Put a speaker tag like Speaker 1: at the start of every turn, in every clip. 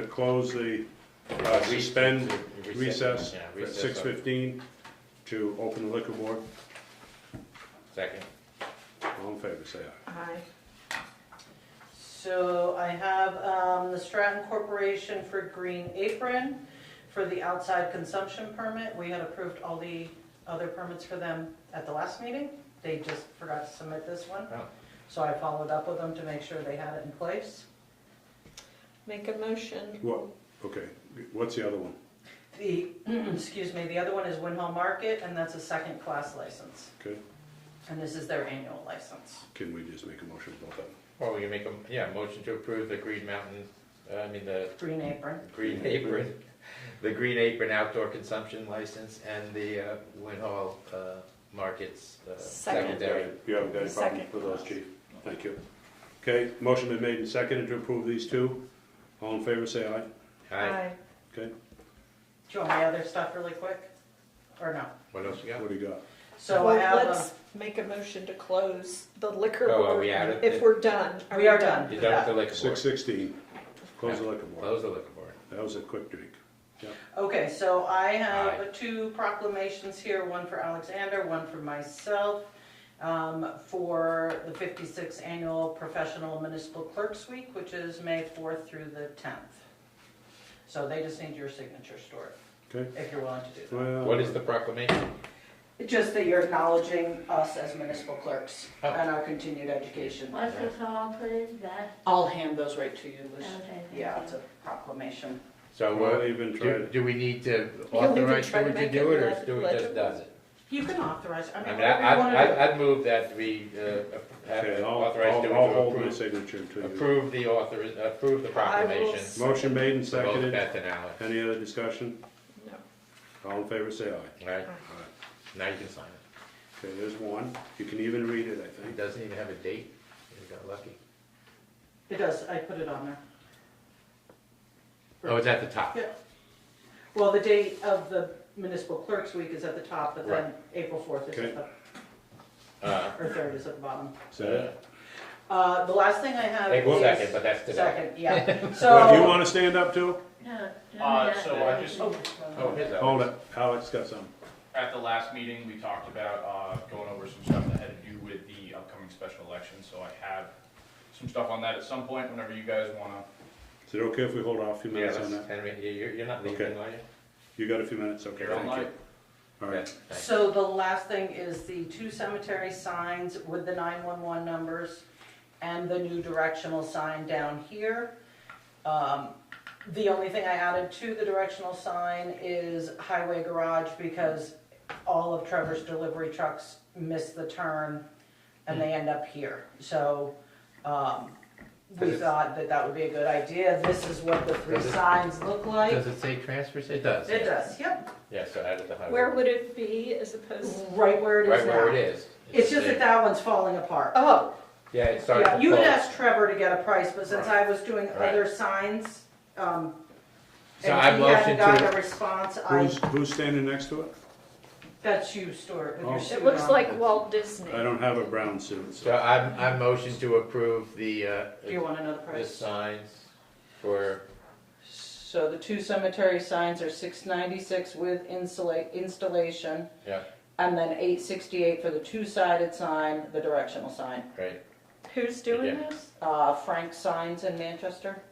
Speaker 1: to close the, uh, suspend
Speaker 2: Recess.
Speaker 1: recess
Speaker 2: Yeah,
Speaker 1: at
Speaker 2: recess.
Speaker 1: six fifteen to open the liquor board.
Speaker 2: Second.
Speaker 1: All in favor, say aye.
Speaker 3: Aye.
Speaker 4: So I have um, the Stratton Corporation for Green Apron for the outside consumption permit. We had approved all the other permits for them at the last meeting. They just forgot to submit this one.
Speaker 2: Oh.
Speaker 4: So I followed up with them to make sure they had it in place.
Speaker 3: Make a motion.
Speaker 1: What, okay, what's the other one?
Speaker 4: The, excuse me, the other one is Winhall Market, and that's a second-class license.
Speaker 1: Okay,
Speaker 4: And this is their annual license.
Speaker 1: can we just make a motion about that?
Speaker 2: Or we can make a, yeah, motion to approve the Green Mountain, uh, I mean, the
Speaker 4: Green Apron.
Speaker 2: Green Apron, the Green Apron Outdoor Consumption License and the uh, Win Hall uh, Markets uh,
Speaker 3: Second.
Speaker 2: Secondary.
Speaker 1: You haven't got any problem
Speaker 3: Second.
Speaker 1: with those, chief? Thank you. Okay, motion been made and seconded to approve these two. All in favor, say aye.
Speaker 2: Hi,
Speaker 1: Okay,
Speaker 4: Do you want my other stuff really quick? Or no?
Speaker 2: what else we got?
Speaker 1: what do you got?
Speaker 4: So I
Speaker 3: Well,
Speaker 4: have, uh,
Speaker 3: let's make a motion to close the liquor
Speaker 2: Oh,
Speaker 3: board.
Speaker 2: are we out of
Speaker 3: If
Speaker 2: it?
Speaker 3: we're done. Are
Speaker 4: We are done.
Speaker 2: You done with the liquor
Speaker 1: Six
Speaker 2: board?
Speaker 1: sixteen, close the liquor board.
Speaker 2: Close the liquor board.
Speaker 1: That was a quick drink.
Speaker 4: Okay, so I
Speaker 2: Aye.
Speaker 4: have two proclamations here, one for Alexander, one for myself, um, for the 56th Annual Professional Municipal Clerks Week, which is May 4th through the 10th. So they just need your signature, Stuart,
Speaker 1: Okay?
Speaker 4: if you're willing to do
Speaker 1: Well,
Speaker 2: What is the proclamation?
Speaker 4: that. Just that you're acknowledging us as municipal clerks
Speaker 2: Oh.
Speaker 4: and our continued education.
Speaker 5: What's the song put in that?
Speaker 4: I'll hand those right to you, Liz.
Speaker 5: Okay.
Speaker 4: Yeah, it's a proclamation.
Speaker 2: So
Speaker 1: Well,
Speaker 2: uh,
Speaker 1: they've been
Speaker 2: do,
Speaker 1: trying.
Speaker 2: do we need to
Speaker 3: can even
Speaker 2: authorize
Speaker 3: try to
Speaker 2: Stuart to
Speaker 3: make
Speaker 2: do
Speaker 3: it
Speaker 2: it or
Speaker 3: leg-
Speaker 2: Stuart just
Speaker 3: legible.
Speaker 2: does it?
Speaker 4: You can authorize, I
Speaker 2: I
Speaker 4: mean,
Speaker 2: mean, I,
Speaker 4: whatever you want to do.
Speaker 2: I, I'd move that we uh, have
Speaker 1: Okay, I'll,
Speaker 2: authorize Stuart
Speaker 1: I'll,
Speaker 2: to
Speaker 1: I'll hold my
Speaker 2: approve-
Speaker 1: signature to you.
Speaker 2: approve the author, approve the
Speaker 3: I will
Speaker 2: proclamation.
Speaker 3: s-
Speaker 1: Motion made and
Speaker 2: for Both
Speaker 1: seconded.
Speaker 2: Beth and Alex,
Speaker 1: Any other discussion?
Speaker 3: No.
Speaker 1: All in favor, say aye.
Speaker 2: right?
Speaker 1: All
Speaker 4: Uh-huh.
Speaker 1: right.
Speaker 2: Now you can sign it.
Speaker 1: Okay, there's one. You can even read it, I
Speaker 2: It
Speaker 1: think.
Speaker 2: doesn't even have a date. You got lucky.
Speaker 4: It does, I put it on there.
Speaker 2: Oh, it's at the top.
Speaker 4: Yeah. Well, the date of the municipal clerks week is at the top, but then April fourth is at the,
Speaker 2: Uh,
Speaker 4: or third is at the bottom.
Speaker 1: Is that it?
Speaker 4: Uh, the last thing I have
Speaker 2: April
Speaker 4: is.
Speaker 2: second, but that's today.
Speaker 4: Second, yeah,
Speaker 1: Well, You
Speaker 4: so.
Speaker 1: wanna stand up too?
Speaker 5: No, no,
Speaker 6: Uh,
Speaker 5: not
Speaker 6: so
Speaker 5: really.
Speaker 6: I just,
Speaker 4: Oh,
Speaker 2: Oh, here's
Speaker 1: Hold
Speaker 2: Alex.
Speaker 1: it. Alex got some.
Speaker 6: at the last meeting, we talked about, uh, going over some stuff that had to do with the upcoming special election, so I have some stuff on that at some point, whenever you guys wanna.
Speaker 1: Is it okay if we hold off a few
Speaker 2: Yeah,
Speaker 1: minutes on
Speaker 2: that's-
Speaker 1: that?
Speaker 2: Henry, you- you're, you're not leaving,
Speaker 1: Okay.
Speaker 2: are you?
Speaker 1: You got a few minutes? Okay,
Speaker 6: You're
Speaker 1: thank you.
Speaker 6: online.
Speaker 1: All
Speaker 2: Yeah,
Speaker 1: right.
Speaker 2: thanks.
Speaker 4: So the last thing is the two cemetery signs with the nine-one-one numbers and the new directional sign down here. Um, The only thing I added to the directional sign is highway garage because all of Trevor's delivery trucks miss the turn and they end up here. So, um, we
Speaker 2: Does it-
Speaker 4: thought that that would be a good idea. This is what the three
Speaker 2: Does it-
Speaker 4: signs look like.
Speaker 2: Does it say transfers? It does.
Speaker 4: It
Speaker 2: yeah.
Speaker 4: does, yep,
Speaker 2: Yeah, so add it to highway.
Speaker 3: Where would it be as opposed to?
Speaker 4: right where it
Speaker 2: Mm-hmm. Right
Speaker 4: is
Speaker 2: where it
Speaker 4: now.
Speaker 2: is.
Speaker 4: It's just
Speaker 2: a-
Speaker 4: that that one's falling apart.
Speaker 3: Oh,
Speaker 2: Yeah, it starts.
Speaker 4: Yeah,
Speaker 2: to
Speaker 4: you had
Speaker 2: close.
Speaker 4: asked Trevor to get a price, but since I was doing
Speaker 2: Right.
Speaker 4: other signs, um,
Speaker 2: So I
Speaker 4: and he
Speaker 2: motion
Speaker 4: hadn't gotten
Speaker 2: to-
Speaker 4: a response, I,
Speaker 1: Who's, who's standing next to it?
Speaker 4: that's you, Stuart, with your
Speaker 1: Oh.
Speaker 4: suit
Speaker 3: it looks
Speaker 4: on.
Speaker 3: like Walt Disney.
Speaker 1: I don't have a brown suit,
Speaker 2: So
Speaker 1: so.
Speaker 2: I'm, I'm motion to approve the, uh,
Speaker 4: Do you want another
Speaker 2: the
Speaker 4: price?
Speaker 2: signs for
Speaker 4: So the two cemetery signs are six ninety-six with insulate, installation.
Speaker 2: Yeah.
Speaker 4: And then eight sixty-eight for the two-sided sign, the directional sign.
Speaker 2: Right,
Speaker 3: Who's doing
Speaker 2: Yeah.
Speaker 3: this?
Speaker 4: Uh, Frank Signs in Manchester?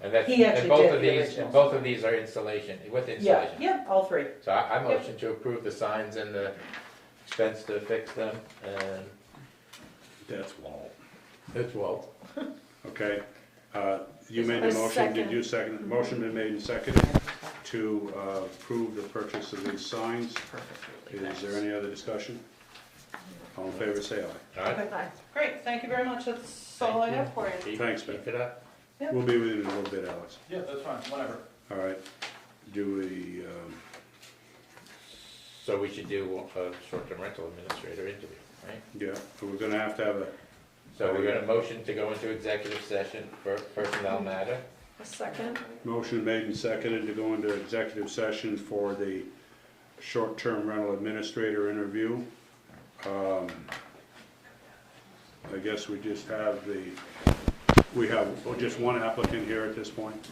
Speaker 2: and that's,
Speaker 4: He actually
Speaker 2: and both
Speaker 4: did
Speaker 2: of
Speaker 4: the
Speaker 2: these,
Speaker 4: original.
Speaker 2: and both of these are installation, with
Speaker 4: Yeah,
Speaker 2: installation.
Speaker 4: yeah, all three.
Speaker 2: So I, I motion to approve the signs and the expense to fix them, and
Speaker 1: That's Walt.
Speaker 2: it's Walt.
Speaker 1: Okay, uh, you
Speaker 3: Is
Speaker 1: made
Speaker 3: there
Speaker 1: a
Speaker 3: a
Speaker 1: motion, did
Speaker 3: second?
Speaker 1: you second, motion been made and seconded to uh, approve the purchase of these signs. Is there any other discussion? All in favor, say aye.
Speaker 2: All right,
Speaker 3: Bye.
Speaker 4: Great, thank you very much, that's all
Speaker 2: Thank
Speaker 4: I
Speaker 2: you.
Speaker 4: have for you.
Speaker 2: keep,
Speaker 1: Thanks,
Speaker 2: keep it up.
Speaker 4: Yep.
Speaker 1: We'll be with you in a little bit, Alex.
Speaker 6: Yeah, that's fine, whenever.
Speaker 1: All right, do we, um,
Speaker 2: So we should do a short-term rental administrator interview, right?
Speaker 1: yeah, we're gonna have to have a,
Speaker 2: So we're gonna motion to go into executive session for personnel matter.
Speaker 3: A second.
Speaker 1: Motion made and seconded to go into executive session for the short-term rental administrator interview. Um, I guess we just have the, we have just one applicant here at this point.